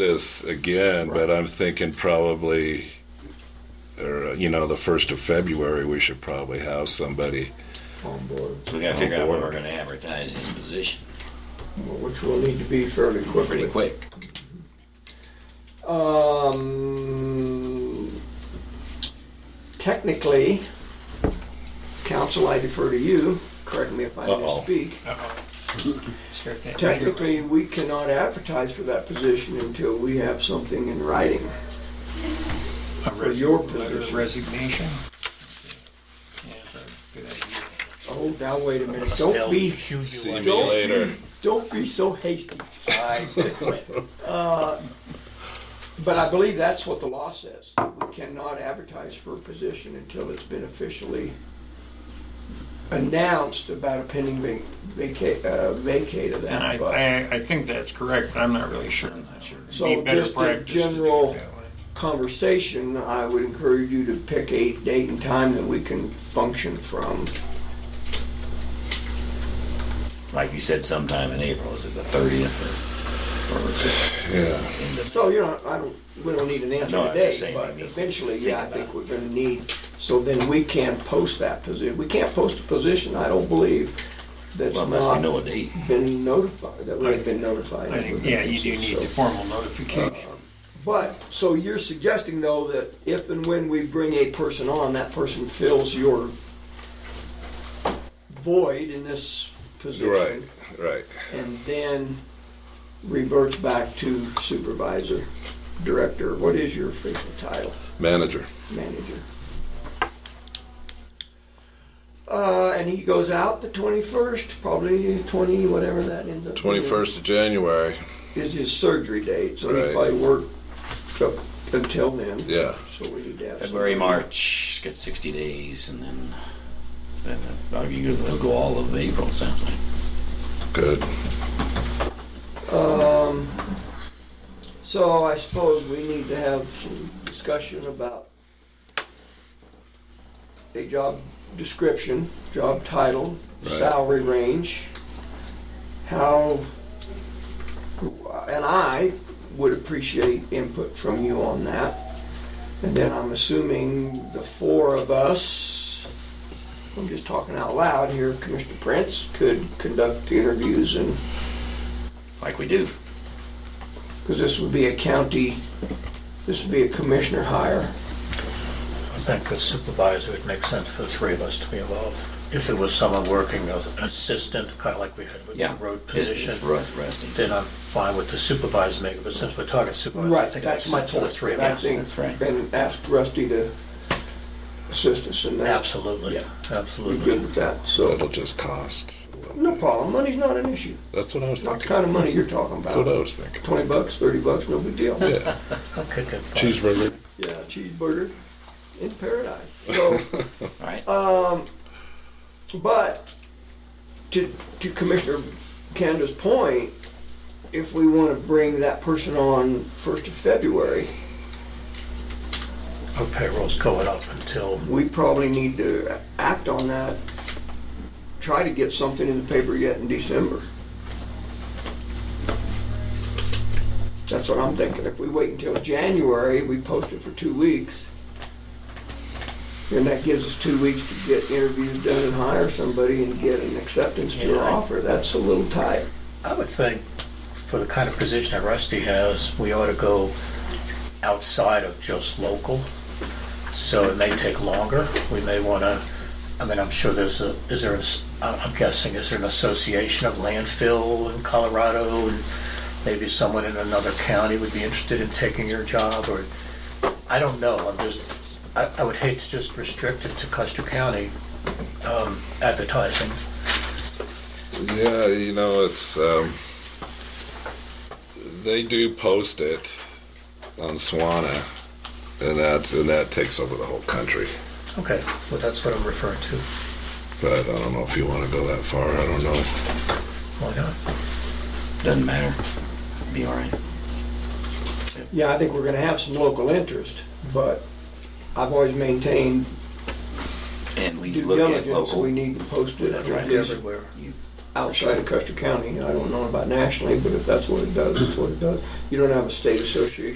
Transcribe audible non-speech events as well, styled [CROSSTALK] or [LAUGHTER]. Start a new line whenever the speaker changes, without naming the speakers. this again, but I'm thinking probably, or, uh, you know, the first of February, we should probably have somebody.
on board,
So we gotta figure out when we're gonna advertise his position
which will need to be fairly quickly.
pretty quick.
Um, technically, council, I defer to you, correct me if I
Uh-oh.
misspeak.
Sure can't read it.
Technically, we cannot advertise for that position until we have something in writing.
A
for your
resi- letter of
position.
Resignation. Yeah, good idea.
Oh, now wait a minute, don't be,
See me
Don't-
later.
don't be so hasty. [LAUGHS] Uh,
I quit.
But I believe that's what the law says. We cannot advertise for a position until it's been officially announced about a pending vac- vacate, uh, vacate of
And I,
that. But
I, I think that's correct, but I'm not really sure. I'm not sure. It'd
So
be better
just a
practice to do it
general-
that way.
Conversation, I would encourage you to pick a date and time that we can function from.
Like you said, sometime in April, is it the thirtieth or, or is it
Yeah.
end of?
So, you know, I don't, we don't need an answer
No, I was just
today,
saying
but
we need to
eventually,
think
yeah, I
about
think
it.
we're gonna need, so then we can post that position. We can't post a position, I don't believe, that's
Well, uh,
not.
unless we know a date.
been notified, that
I
we've been
think-
notified.
I
of
think,
the
yeah, you do
vacancy,
need the
so-
formal notification.
But, so you're suggesting though that if and when we bring a person on, that person fills your void in this
Right,
position
right.
and then reverts back to supervisor, director, what is your official title?
Manager.
Manager. Uh, and he goes out the twenty-first, probably twenty, whatever that ends up being.
21st of January.
is his surgery date, so
Right.
he probably worked up until then.
Yeah.
So we need to have
February,
somebody-
March, it's got sixty days and then, then, uh, you, it'll go all of April, it sounds like.
Good.
Um, so I suppose we need to have some discussion about a job description, job title,
Right.
salary range, how, and I would appreciate input from you on that. And then I'm assuming the four of us, I'm just talking out loud here, Commissioner Prince could conduct the interviews and
Like we do.
because this would be a county, this would be a commissioner hire.
I think as supervisor, it makes sense for the three of us to be involved. If it was someone working as an assistant, kind of like we had with the road position,
It's rest- resting.
then I'm fine with the supervisor making, but since we're talking supervisor, I think it makes
That's my
sense for the
point.
three of
I
us.
think-
That's right.
And ask Rusty to assist us in that.
Absolutely,
Be
absolutely.
good with that, so.
That'll just cost. a little
No
bit.
problem, money's not an issue.
That's what I was
It's not the
thinking.
kind of money you're talking
That's what I
about.
was thinking.
Twenty bucks, thirty bucks, no big deal.
Yeah.
Okay, good. fine.
[LAUGHS] Cheeseburger.
Yeah, cheeseburger in [LAUGHS] paradise. So,
All right.
um, but to, to Commissioner Canada's point, if we want to bring that person on first of February,
Our payroll's going up until,
we probably need to act on that, try to get something in the paper yet in December. That's what I'm thinking. If we wait until January, we post it for two weeks, then that gives us two weeks to get interviews done and hire somebody and get an acceptance to an
Yeah.
offer. That's a little tight.
I would think, for the kind of position that Rusty has, we ought to go outside of just local. So it may take longer. We may want to, I mean, I'm sure there's a, is there, an as- uh, I'm guessing, is there an association of landfill in Colorado? and Maybe someone in another county would be interested in taking your job or, I don't know. I'm just, I, I would hate to just restrict it to Custer County um, advertising.
Yeah, you know, it's um, they do post it on Swana, and that and that takes over the whole country.
Okay, well, that's what I'm referring to.
But I don't know if you want to go that far. I don't know.
Why not?
Doesn't matter. Be all right.
Yeah, I think we're gonna have some local interest, but I've always maintained
And we
due
look at
diligence, we
local.
need to post it.
That would
Right.
be everywhere.
outside of Custer County, I don't know about nationally, but if that's what it does, that's what it does. You don't have a state association